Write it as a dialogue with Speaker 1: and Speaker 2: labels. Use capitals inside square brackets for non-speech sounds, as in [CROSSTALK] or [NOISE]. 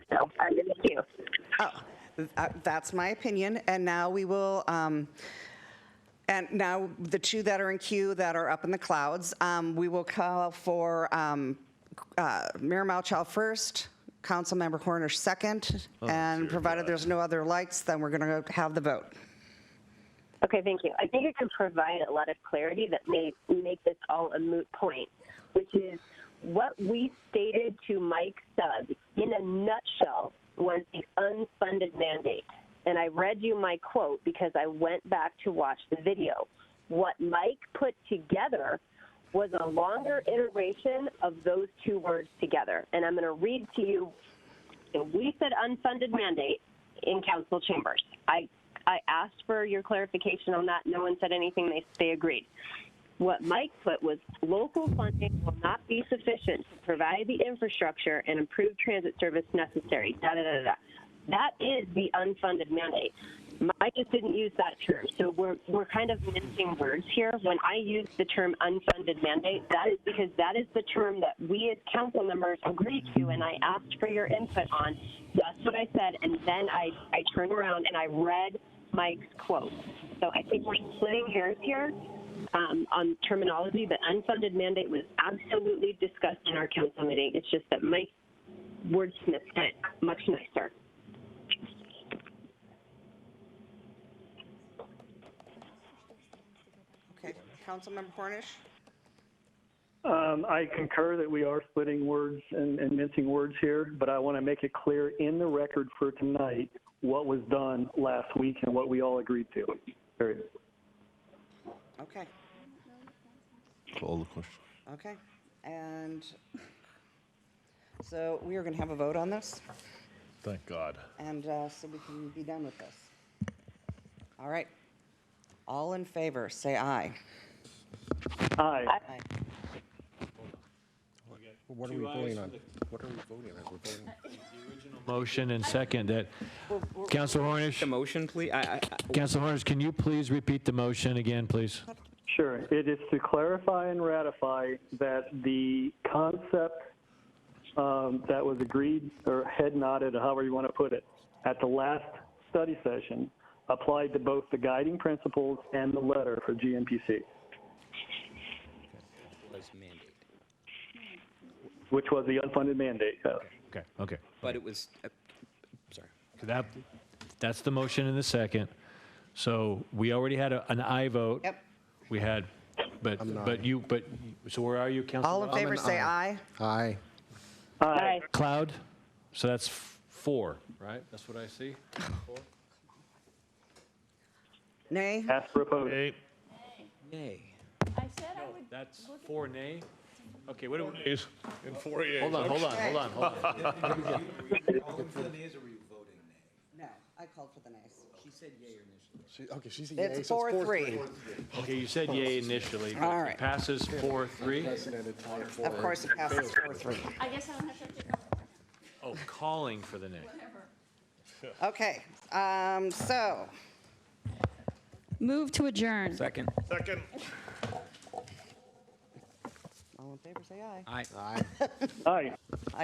Speaker 1: Oh, th- uh, that's my opinion, and now we will, um, and now the two that are in queue that are up in the clouds, um, we will call for um, uh, Mayor Malchow first, Councilmember Cornish second, and provided there's no other lights, then we're going to have the vote.
Speaker 2: Okay, thank you. I think it can provide a lot of clarity that may make this all a moot point, which is what we stated to Mike Stubbs in a nutshell was the unfunded mandate. And I read you my quote because I went back to watch the video. What Mike put together was a longer iteration of those two words together. And I'm going to read to you so we said unfunded mandate in council chambers. I, I asked for your clarification on that. No one said anything. They, they agreed. What Mike put was local funding will not be sufficient to provide the infrastructure and improve transit service necessary. Da, da, da, da, da. That is the unfunded mandate. Mike just didn't use that term. So we're, we're kind of mincing words here. When I use the term unfunded mandate, that is because that is the term that we as council members agreed to and I asked for your input on. That's what I said. And then I, I turned around and I read Mike's quote. So I think we're splitting hairs here um, on terminology, but unfunded mandate was absolutely discussed in our council meeting. It's just that Mike wordsmithed it much nicer.
Speaker 1: Okay, Councilmember Cornish?
Speaker 3: Um, I concur that we are splitting words and, and mincing words here, but I want to make it clear in the record for tonight what was done last week and what we all agreed to. Period.
Speaker 1: Okay,
Speaker 4: All the questions.
Speaker 1: okay. And so we are going to have a vote on this?
Speaker 4: Thank God.
Speaker 1: And uh, so we can be done with this. All right. All in favor, say aye.
Speaker 3: Aye.
Speaker 1: Aye.
Speaker 5: What are we voting on? What are we voting on? We're voting.
Speaker 6: Motion and second that, Council Hornish,
Speaker 7: The motion, please? I, I,
Speaker 6: Council Hornish, can you please repeat the motion again, please?
Speaker 3: Sure. It is to clarify and ratify that the concept um, that was agreed or head nodded, or however you want to put it, at the last study session applied to both the guiding principles and the letter for GMPC,
Speaker 7: was mandate,
Speaker 3: which was the unfunded mandate. yes.
Speaker 6: Okay, okay.
Speaker 7: but it was, uh, sorry.
Speaker 6: That, that's the motion and the second. So we already had a- an aye vote.
Speaker 1: Yep.
Speaker 6: We had, but, but you, but, so where are you, Council?
Speaker 1: All in favor, say aye.
Speaker 5: Aye.
Speaker 3: Aye.
Speaker 6: Cloud? So that's f- four, right? That's what I see?
Speaker 1: Nay?
Speaker 3: As proposed.
Speaker 7: Yay.
Speaker 8: I said I would
Speaker 6: That's four nay? Okay, what do we?
Speaker 4: In four years.
Speaker 6: Hold on, hold on, hold on, hold on. [LAUGHS]
Speaker 1: No, I called for the nays.
Speaker 5: She- Okay, she's a yay. so
Speaker 1: It's four, three.
Speaker 6: Okay, you said yay initially. but
Speaker 1: All
Speaker 6: it
Speaker 1: right.
Speaker 6: Passes four, three.
Speaker 1: Of course, it passes four, three.
Speaker 8: I guess I don't have to.
Speaker 6: Oh, calling for the nay.
Speaker 1: Okay, um, so,
Speaker 8: Move to adjourn.
Speaker 7: Second.
Speaker 4: Second.
Speaker 1: all in favor, say aye.
Speaker 7: I.
Speaker 5: Aye.
Speaker 3: Aye.